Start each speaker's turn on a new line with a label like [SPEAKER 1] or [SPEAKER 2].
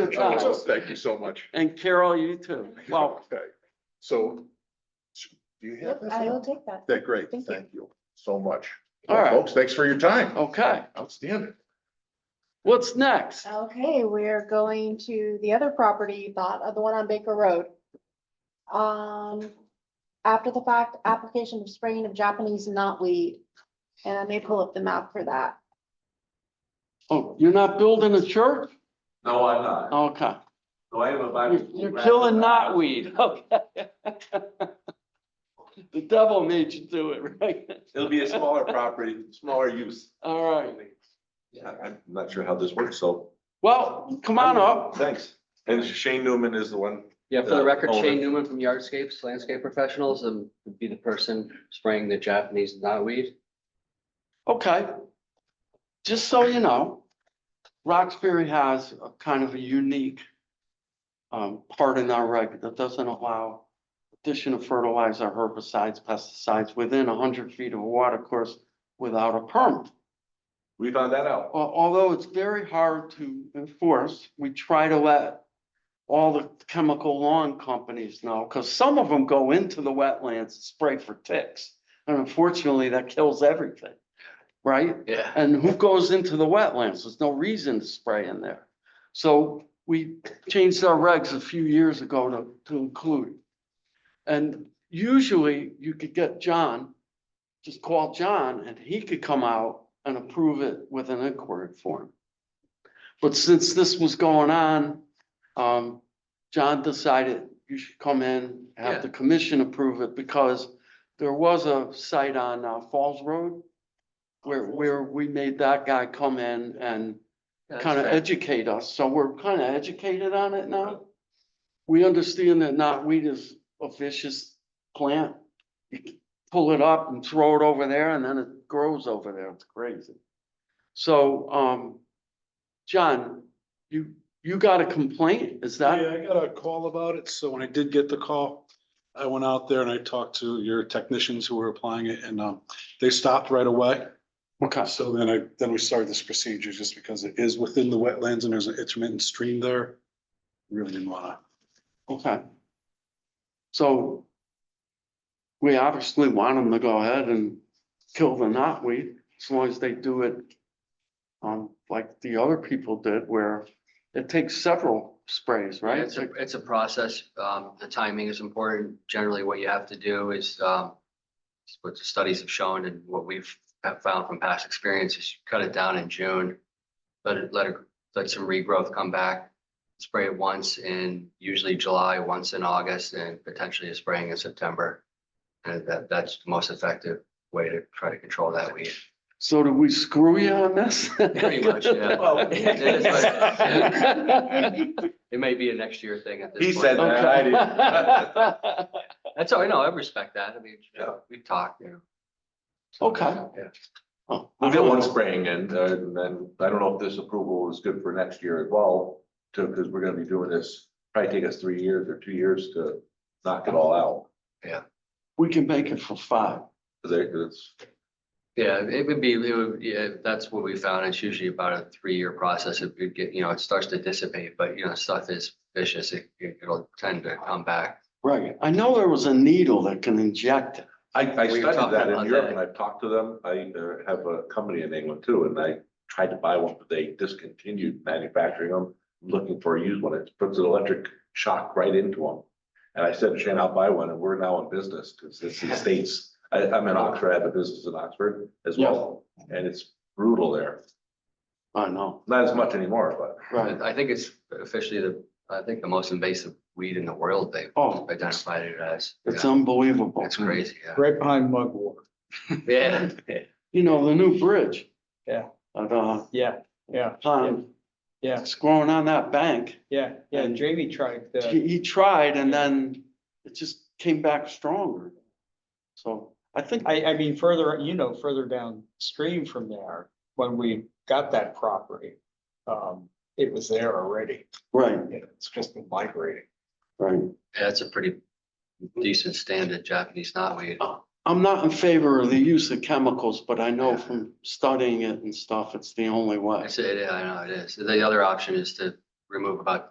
[SPEAKER 1] your
[SPEAKER 2] Oh,
[SPEAKER 1] time.
[SPEAKER 2] Thank you so much.
[SPEAKER 1] And Carol, you too. Well,
[SPEAKER 2] Okay, so do you have
[SPEAKER 3] I will
[SPEAKER 2] that?
[SPEAKER 3] take that.
[SPEAKER 2] That, great,
[SPEAKER 3] Thank you.
[SPEAKER 2] thank you so much.
[SPEAKER 1] All
[SPEAKER 2] Well,
[SPEAKER 1] right.
[SPEAKER 2] Folks, thanks for your time.
[SPEAKER 1] okay,
[SPEAKER 2] Outstanding.
[SPEAKER 1] what's next?
[SPEAKER 3] Okay, we're going to the other property you thought of, the one on Baker Road. Um, after the fact, application of spraying of Japanese knotweed. And I may pull up the map for that.
[SPEAKER 1] Oh, you're not building a church?
[SPEAKER 4] No, I'm not.
[SPEAKER 1] Okay,
[SPEAKER 4] So I have a
[SPEAKER 1] You're-
[SPEAKER 4] Bible.
[SPEAKER 1] you're killing knotweed, okay. The devil made you do it, right?
[SPEAKER 4] It'll be a smaller property, smaller use.
[SPEAKER 1] All right,
[SPEAKER 4] Yeah, I'm not sure how this works, so.
[SPEAKER 1] well, come on up.
[SPEAKER 4] Thanks. And Shane Newman is the one.
[SPEAKER 5] Yeah, for the record,
[SPEAKER 4] Owner.
[SPEAKER 5] Shane Newman from Yardscapes Landscape Professionals, and would be the person spraying the Japanese knotweed.
[SPEAKER 1] Okay. Just so you know, Roxbury has a kind of a unique um, part in our reg that doesn't allow addition of fertilizer, herbicides, pesticides within hundred feet of a watercourse without a permit.
[SPEAKER 4] We found that out.
[SPEAKER 1] Al- although it's very hard to enforce, we try to let all the chemical lawn companies know, because some of them go into the wetlands and spray for ticks. And unfortunately, that kills everything, right?
[SPEAKER 5] Yeah.
[SPEAKER 1] And who goes into the wetlands? There's no reason to spray in there. So we changed our regs a few years ago to, to include. And usually you could get John, just call John and he could come out and approve it with an inquiry form. But since this was going on, um, John decided you should come in, have the commission approve it because there was a site on uh, Falls Road where, where we made that guy come in and kind of educate us, so we're kind of educated on it now. We understand that knotweed is a vicious plant. You c- pull it up and throw it over there and then it grows over there. It's crazy. So, um, John, you, you got a complaint? Is that?
[SPEAKER 6] Yeah, I got a call about it, so when I did get the call, I went out there and I talked to your technicians who were applying it and um, they stopped right away.
[SPEAKER 1] Okay,
[SPEAKER 6] So then I, then we started this procedure just because it is within the wetlands and there's an intermittent stream there. Really didn't wanna,
[SPEAKER 1] okay. So we obviously want them to go ahead and kill the knotweed as long as they do it um, like the other people did where it takes several sprays, right?
[SPEAKER 5] It's a, it's a process. Um, the timing is important. Generally, what you have to do is, um, what the studies have shown and what we've have found from past experiences, you cut it down in June. Let it, let it, let some regrowth come back, spray it once in usually July, once in August, and potentially a spraying in September. And that, that's the most effective way to try to control that weed.
[SPEAKER 1] So do we screw you on this?
[SPEAKER 5] Pretty much, yeah.
[SPEAKER 4] Well,
[SPEAKER 5] It may be a next year thing at this
[SPEAKER 4] He
[SPEAKER 5] point.
[SPEAKER 4] said that. I
[SPEAKER 1] Okay.
[SPEAKER 5] That's all, I know. I respect that. I mean, you know, we've talked, you know.
[SPEAKER 1] Okay.
[SPEAKER 5] Yeah.
[SPEAKER 1] Oh,
[SPEAKER 4] We'll get one spraying and, uh, and then I don't know if this approval is good for next year as well, too, because we're gonna be doing this, probably take us three years or two years to knock it all out.
[SPEAKER 1] We can make it for five.
[SPEAKER 4] Cause they- 'cause it's,
[SPEAKER 5] Yeah, it would be, it would, yeah, that's what we found. It's usually about a three-year process. It would get, you know, it starts to dissipate, but you know, stuff is vicious. It, it'll tend to come back.
[SPEAKER 1] Right. I know there was a needle that can inject it.
[SPEAKER 4] I, I
[SPEAKER 5] We were
[SPEAKER 4] studied
[SPEAKER 5] talking
[SPEAKER 4] that in
[SPEAKER 5] about
[SPEAKER 4] Europe
[SPEAKER 5] that.
[SPEAKER 4] and I've talked to them. I uh, have a company in England too, and I tried to buy one, but they discontinued manufacturing them. I'm Looking for a used one. It puts an electric shock right into them. And I said, Shane, I'll buy one and we're now in business because it's the States. I, I'm in Oxford, I have a business in Oxford as well, and it's brutal there.
[SPEAKER 1] I know,
[SPEAKER 4] Not as much anymore, but
[SPEAKER 1] right.
[SPEAKER 5] I think it's officially the, I think the most invasive weed in the world. They've
[SPEAKER 1] Oh,
[SPEAKER 5] identified it as.
[SPEAKER 1] it's
[SPEAKER 5] Yeah.
[SPEAKER 1] unbelievable.
[SPEAKER 5] It's crazy, yeah.
[SPEAKER 6] right behind mugwort.
[SPEAKER 5] Yeah.
[SPEAKER 1] You know, the new bridge.
[SPEAKER 7] Yeah.
[SPEAKER 1] At, uh,
[SPEAKER 7] Yeah, yeah,
[SPEAKER 1] Pond.
[SPEAKER 7] yeah,
[SPEAKER 1] It's growing on that bank.
[SPEAKER 7] yeah, yeah,
[SPEAKER 1] And-
[SPEAKER 7] Jamie tried the,
[SPEAKER 1] He, he tried and then it just came back stronger. So I think.
[SPEAKER 7] I, I mean, further, you know, further downstream from there, when we got that property. Um, it was there already,
[SPEAKER 1] Right,
[SPEAKER 7] you know, it's just been migrating.
[SPEAKER 1] right.
[SPEAKER 5] Yeah, That's a pretty decent standard Japanese knotweed.
[SPEAKER 1] Uh, I'm not in favor of the use of chemicals, but I know from studying it and stuff, it's the only way.
[SPEAKER 5] I say, it- I know it is. The other option is to remove about